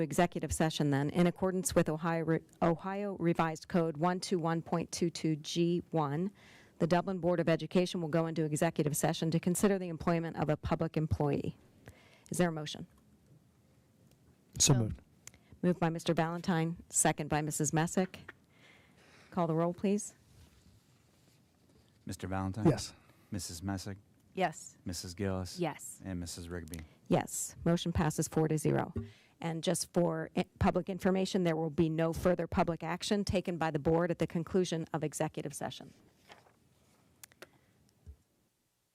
executive session then, in accordance with Ohio Re- Ohio Revised Code 121.22G1. The Dublin Board of Education will go into executive session to consider the employment of a public employee. Is there a motion? So moved. Moved by Mr. Valentine, second by Mrs. Messick. Call the roll, please. Mr. Valentine? Yes. Mrs. Messick? Yes. Mrs. Gillis? Yes. And Mrs. Rigby? Yes, motion passes four to zero. And just for i- public information, there will be no further public action taken by the board at the conclusion of executive session.